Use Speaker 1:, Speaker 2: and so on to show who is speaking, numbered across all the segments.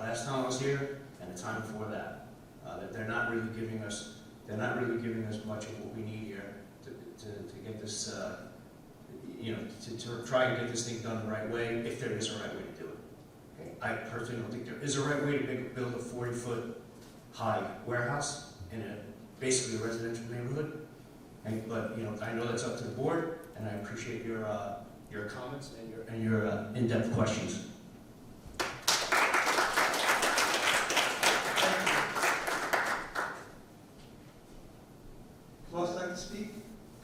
Speaker 1: last time I was here and the time before that. Uh, that they're not really giving us, they're not really giving us much of what we need here to, to, to get this, uh, you know, to, to try and get this thing done the right way, if there is a right way to do it. I personally don't think there is a right way to make, build a forty-foot high warehouse in a, basically a residential neighborhood. And, but, you know, I know that's up to the board, and I appreciate your, uh, your comments and your, and your uh, in-depth questions.
Speaker 2: Who else would like to speak?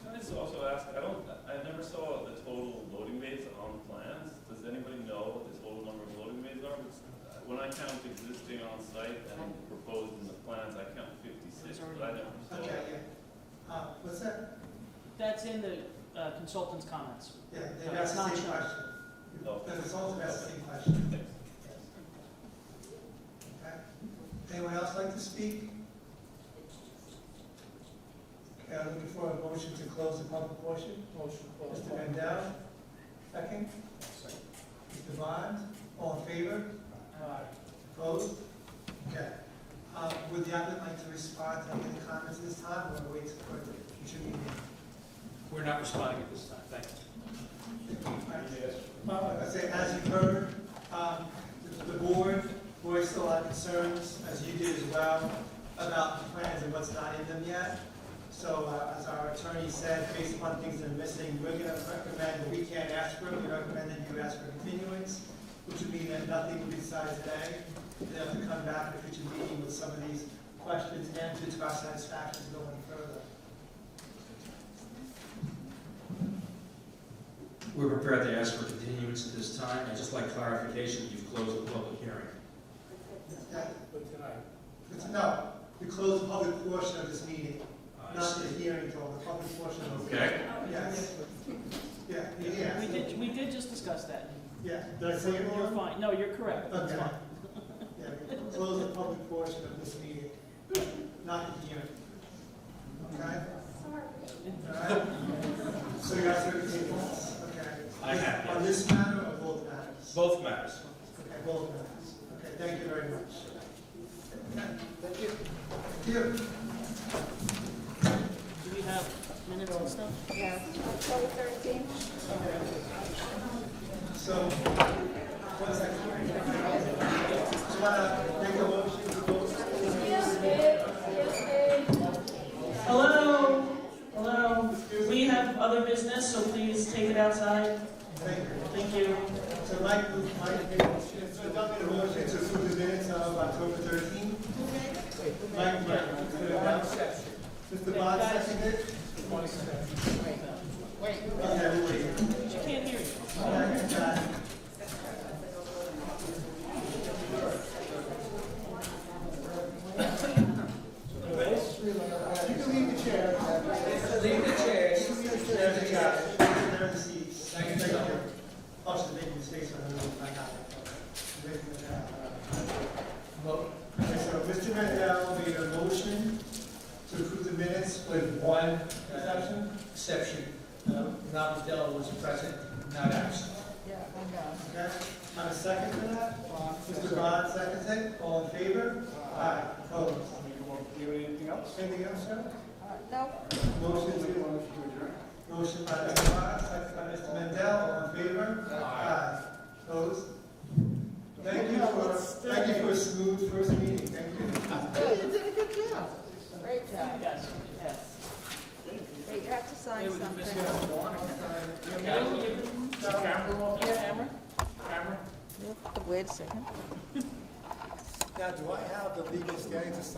Speaker 3: Can I just also ask, I don't, I never saw the total loading bays on plans. Does anybody know what the total number of loading bays are? Because, uh, When I count existing on site and proposed in the plans, I count fifty-six, but I never saw.
Speaker 2: Okay, yeah. Uh, what's that?
Speaker 4: That's in the uh, consultant's comments.
Speaker 2: Yeah, they've
Speaker 4: No,
Speaker 2: asked
Speaker 4: it's
Speaker 2: the
Speaker 4: not
Speaker 2: same
Speaker 4: shown.
Speaker 2: question.
Speaker 3: No.
Speaker 2: The consultant asked the same question,
Speaker 3: Thanks.
Speaker 2: okay? Anyone else like to speak? Okay, I'm looking for a motion to close the public portion.
Speaker 4: Motion
Speaker 2: Mr. Mandel, second. Mr. Bond, all in favor? Opposed? Okay. Uh, would the applicant like to respond to any comments this time, or wait for the future meeting?
Speaker 5: We're not responding at this time, thank you.
Speaker 2: I say, Uh, as you've heard, um, the- the board voiced a lot of concerns, as you did as well, about the plans and what's not in them yet. So uh, as our attorney said, based upon things that are missing, we're going to recommend, we can't ask for it, we recommend that you ask for continuance, which would mean that nothing would be decided today. You'd have to come back at a future meeting with some of these questions answered to our satisfaction going further.
Speaker 5: We're prepared to ask for continuance at this time, I'd just like clarification, you've closed the public hearing.
Speaker 2: Yeah. It's- No, we close the public portion of this meeting.
Speaker 5: I
Speaker 2: Not the
Speaker 5: see.
Speaker 2: hearing, though, the public portion of it.
Speaker 5: Okay,
Speaker 2: Yes.
Speaker 4: Oh,
Speaker 2: Yeah, yeah.
Speaker 4: We did, we did just discuss that.
Speaker 2: Yeah, did I say it
Speaker 4: You're
Speaker 2: wrong?
Speaker 4: fine, no, you're correct, that's
Speaker 2: Okay.
Speaker 4: fine.
Speaker 2: Yeah, we close the public portion of this meeting, not the hearing. Okay? All right? So you guys are taking this, okay?
Speaker 5: I have,
Speaker 2: On this matter or both matters?
Speaker 5: both matters.
Speaker 2: Okay, both matters. Okay, thank you very much. Thank you. Thank you.
Speaker 4: Do we have minutes and stuff?
Speaker 6: Yes, October thirteenth.
Speaker 2: So, one second. Just wanna make a motion to close.
Speaker 4: Hello, hello, we have other business, so please take it outside,
Speaker 2: Thank you.
Speaker 4: thank you.
Speaker 2: So Mike, Mike made a motion, so Doug made a motion to approve the minutes of October thirteenth. Mike, Mike, Mr. Bond, Mr. Bond seconded. Okay, we'll wait.
Speaker 4: She can't hear you.
Speaker 2: Okay, uh, You can leave the chair. Leave the chair. There's the chair. There's the seats. Thank you. Oh, she's making mistakes on her own. I got it. Making it out. Okay, so Mr. Mandel made a motion to approve the minutes with one exception.
Speaker 7: exception, uh, Robert Dell was present, not absent.
Speaker 2: Okay, have a second for that? Mr. Bond, second it, all in favor? Aye. Opposed? Anything else, sir?
Speaker 6: No,
Speaker 2: Motion to, motion by Mr. Bond, second by Mr. Mendel, all in favor? Aye. Opposed? Thank you for, thank you for a smooth first meeting, thank you.
Speaker 6: great job.
Speaker 4: Yes, yes.
Speaker 6: Wait, you have to sign something.
Speaker 4: Camera?
Speaker 6: Wait a second.
Speaker 2: Now, do I have the legal standing to sign